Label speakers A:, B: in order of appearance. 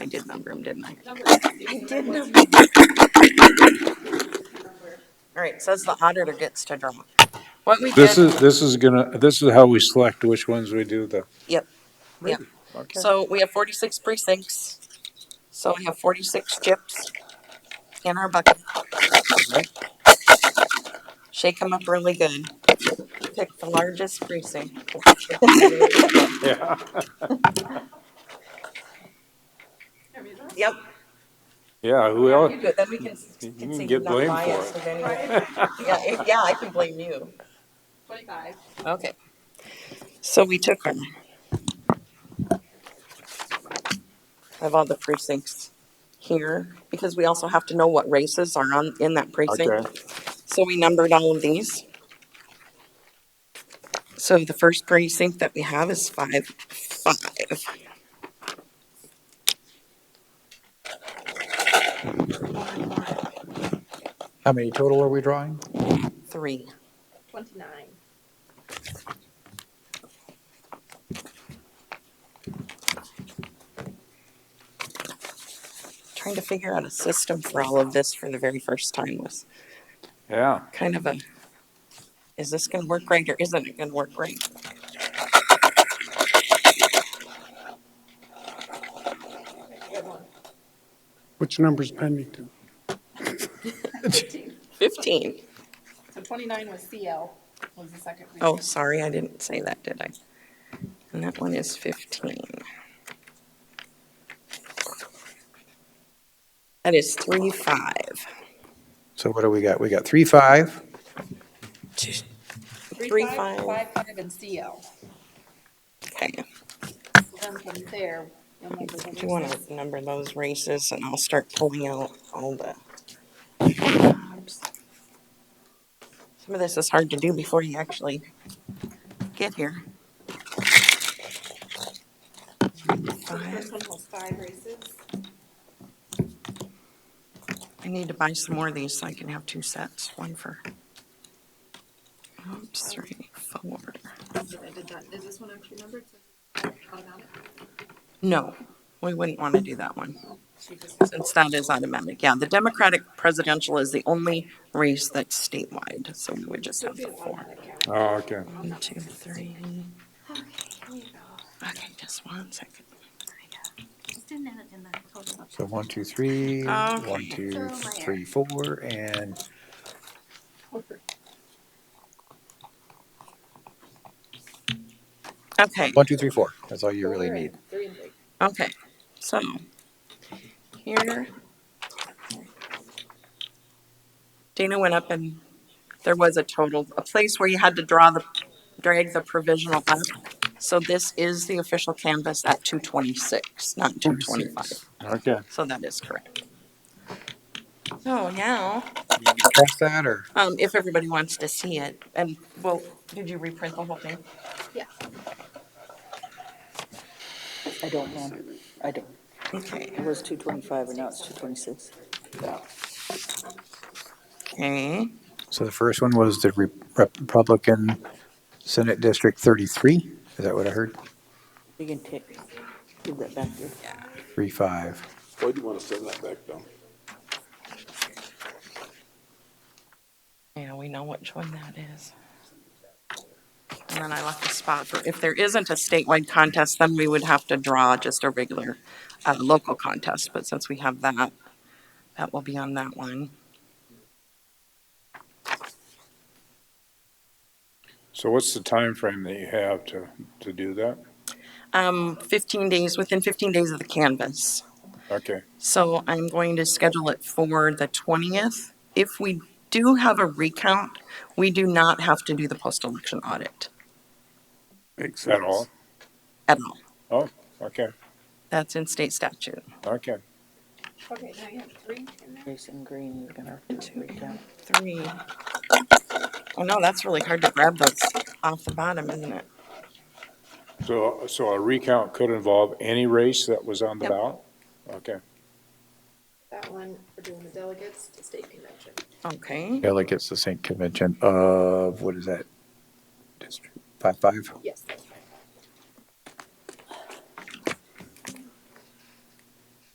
A: did number them, didn't I?
B: All right, says the auditor gets to draw.
A: What we
C: This
A: did,
C: is, this is gonna, this is how we select which ones we do the.
B: Yep, yep.
A: so we have forty-six precincts,
B: So we have forty-six chips in our bucket. Shake them up really good. Pick the largest precinct.
C: Yeah.
B: Yep.
C: Yeah, who else?
B: But then we can.
C: You
B: can
C: can
B: see
C: get
B: who's not
C: blamed for
B: biased
C: it.
B: with any- Yeah, if- yeah, I can blame you.
D: Twenty-five.
B: Okay. So we took them. I have all the precincts here because we also have to know what races are on, in that precinct.
C: Okay.
B: So we numbered all of these. So the first precinct that we have is five, five.
E: How many total are we drawing?
B: Three.
D: Twenty-nine.
B: Trying to figure out a system for all of this for the very first time was
C: Yeah,
B: kind of a, is this gonna work right or isn't it gonna work right?
F: Which number's pending to?
D: Fifteen.
B: Fifteen.
D: So twenty-nine was CL, was the second.
B: Oh,
D: precinct.
B: sorry, I didn't say that, did I? And that one is fifteen. That is three, five.
E: So what do we got? We got three, five.
B: three, five.
D: Five, five, and CL.
B: Okay.
D: So then from there, you'll number the
B: Do you want
D: races.
B: to number those races and I'll start pulling out all the. Some of this is hard to do before you actually get here. Five.
D: First one was five races.
B: I need to buy some more of these so I can have two sets, one for. Oops, three, four.
D: I did that. Is this one actually numbered? So it's automatic?
B: No, we wouldn't want to do that one.
D: She just-
B: Since that is automatic, yeah, the Democratic presidential is the only race that's statewide, so we would just have the four.
C: oh, okay.
B: One, two, three. Okay, just one second.
G: Just another in the total.
E: So one, two, three, one,
B: Okay.
E: two, three, four, and
B: Okay,
E: one, two, three, four. That's all you really
D: Four
E: need.
D: and Three and three.
B: okay, so here. Dana went up and there was a total, a place where you had to draw the, drag the provisional up. So this is the official canvas at two twenty-six, not two twenty-five.
C: Okay.
B: So that is correct. So Oh, now,
E: Cross that or?
B: um, if everybody wants to see it, and well, did you reprint the whole thing?
D: Yeah.
H: I don't know. I don't.
B: Okay.
H: It was two twenty-five and now it's two twenty-six.
B: Okay,
E: So the first one was the Re- Republican Senate District thirty-three. Is that what I heard?
H: You can take, give that back there.
E: Three, five.
I: Why do you want to send that back down?
B: yeah, we know which one that is. And then I left a spot for, if there isn't a statewide contest, then we would have to draw just a regular, uh, local contest, but since we have that, that will be on that one.
C: So what's the time frame that you have to, to do that?
B: Um, fifteen days, within fifteen days of the canvas.
C: Okay,
B: So I'm going to schedule it for the 20th. If we do have a recount, we do not have to do the post-election audit
I: Makes
C: is that all?
B: at all.
C: Oh, okay,
B: That's in state statute.
C: okay.
D: Okay, now you have three in there.
H: Jason Green, you're gonna have to read down.
B: Three. Oh no, that's really hard to grab those off the bottom, isn't it?
C: So, so a recount could involve any race that was on the
B: Yep.
C: ballot? Okay,
D: That one, we're doing the delegates to state convention.
B: Okay,
E: Delegates to St. Convention of, what is that? District five, five?
D: Yes. that's